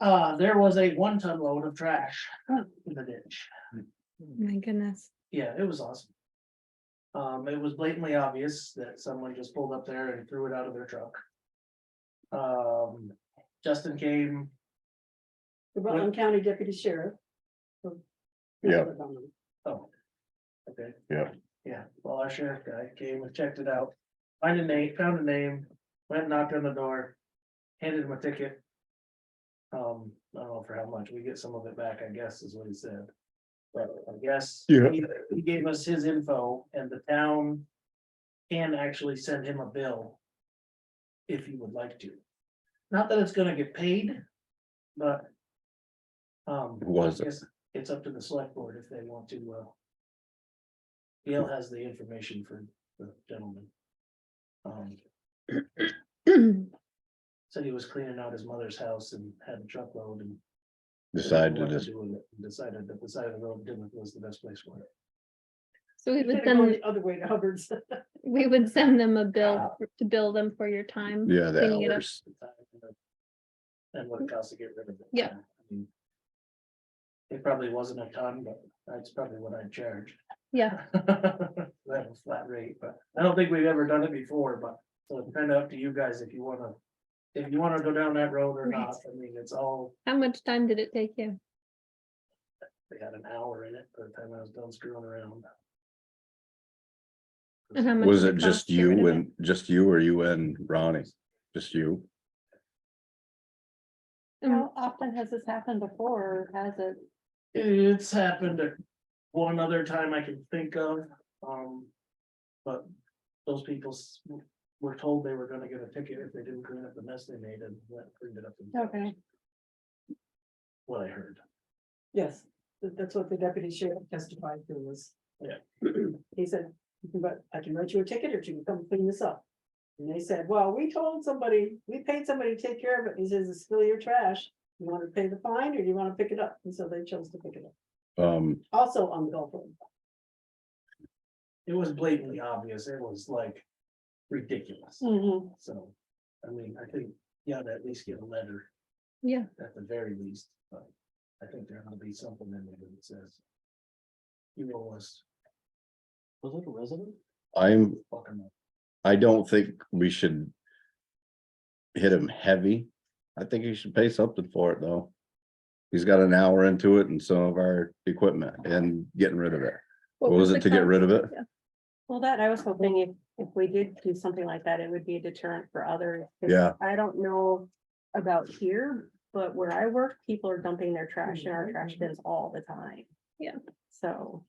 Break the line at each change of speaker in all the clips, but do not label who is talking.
Uh, there was a one ton load of trash in the ditch.
My goodness.
Yeah, it was awesome. Um, it was blatantly obvious that someone just pulled up there and threw it out of their truck. Um, Justin came,
The Rutland County Deputy Sheriff. from-
Yeah.
oh. Okay.
Yeah.
Yeah, well, our sheriff guy came and checked it out, find a name, found a name, went and knocked on the door, handed him a ticket. Um, I don't know for how much, we get some of it back, I guess, is what he said. But I guess.
Yeah.
he- He gave us his info and the town can actually send him a bill. If he would like to. Not that it's gonna get paid, but. Um.
Was
I
it?
guess it's up to the select board if they want to, uh. Gail has the information for the gentleman. Um, said he was cleaning out his mother's house and had a truckload and.
decided
what to
this,
do with it, and Decided that the side of the road didn't was the best place for it.
So we would
Should've gone
send,
the Other way to Hubbard's.
we would send them a bill for- to bill them for your time.
yeah, the
Cleaning it up.
hours.
And what it costs to get rid of it.
Yeah.
I mean, It probably wasn't a ton, but that's probably what I'd charge.
Yeah,
That was flat rate, but I don't think we've ever done it before, but so it's kind of up to you guys if you wanna. If you wanna go down that road or not, I mean, it's all,
how much time did it take you?
they had an hour in it by the time I was done screwing around.
And how much
Was
did
it
cost
just
to get rid of
you
it?
and, just you or you and Ronnie? Just you?
Um,
How often has this happened before, or has it?
It's happened at one other time I can think of, um. But those people s- were told they were gonna get a ticket if they didn't clean up the mess they made and went and cleaned it up. themselves,
Okay,
What I heard.
Yes, tha- that's what the deputy sheriff testified to was.
Yeah.
He said, but I can write you a ticket or you can come clean this up. And they said, well, we told somebody, we paid somebody to take care of it. He says, it's still your trash. You want to pay the fine or you want to pick it up? And so they chose to pick it up.
Um,
Also on the Gulf Road.
It was blatantly obvious. It was like ridiculous.
Mhm.
So, I mean, I think, yeah, to at least get a letter.
Yeah.
At the very least, but I think there ought to be something in there that says. You owe us. Was it a resident?
I'm,
Fucking,
I don't think we should. Hit him heavy. I think he should pay something for it, though. He's got an hour into it and some of our equipment and getting rid of it. What was
the
it to get
cost?
rid of it?
Yeah.
well, that, I was hoping if, if we did do something like that, it would be a deterrent for others. 'cause
Yeah.
I don't know about here, but where I work, people are dumping their trash in our trash bins all the time.
Yeah.
So,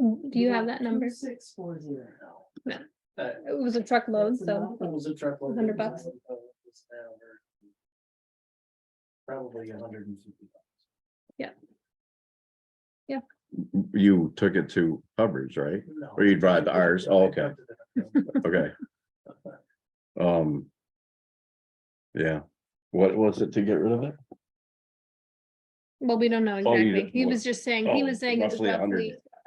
Mm, Do you have that number? It
Six four zero.
that
was a truckload,
That's
so
enough.
Uh, that was a truckload.
100 bucks.
Probably a hundred and fifty.
You took it to Hubbard's, right? Or you drive to ours? Oh, okay. Okay. Um. Yeah, what was it to get rid of it?
well, we don't know
Oh,
exactly.
you didn't-
He was just saying, he
oh,
was saying it's
roughly a hundred.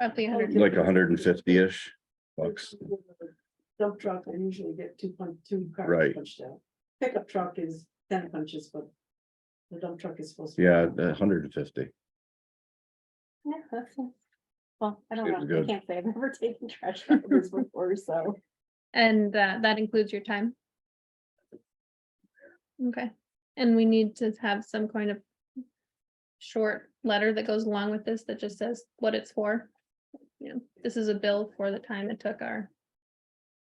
roughly, roughly a hundred.
Like hundred and fifty-ish bucks,
Dump truck, I usually get two punch, two cars
Right.
punched out. Pickup truck is ten punches, but the dump truck is supposed to. be-
yeah, hundred and fifty.
yeah, that's, well,
It was
I don't know, I
good.
can't say I've never taken trash out of this before, so.
And uh, that includes your time? Okay, and we need to have some kind of short letter that goes along with this that just says what it's for. You know, this is a bill for the time it took our,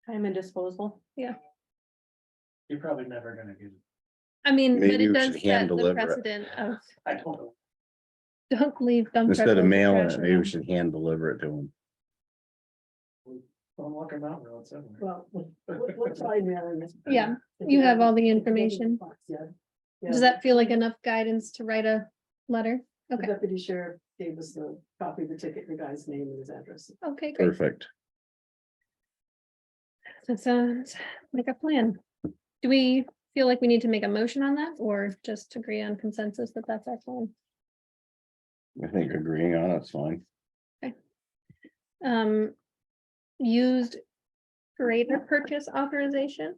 Time and disposal.
You're probably never gonna get it.
I mean, but
Maybe
it
we
does
should
set
hand
the
deliver it.
precedent of
I don't know.
don't leave dump. truck
Instead of
loads
mailing
trash
it, maybe we
around.
should hand deliver it to them.
On Walker Mountain Road somewhere.
Well, what, what- what's my mailing list?
Yeah,
If
you have all the
if you have
information.
box, yeah. Yeah,
Does that feel like enough guidance to write a letter?
the
Okay,
Deputy sheriff gave us the copy of the ticket, the guy's name and his address.
okay, great.
Perfect.
That sounds like a plan. Do we feel like we need to make a motion on that or just agree on consensus that that's our plan?
I think agreeing on it's fine.
Um, used greater purchase authorization?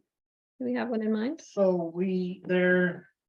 Do we have one in mind?
So we, there,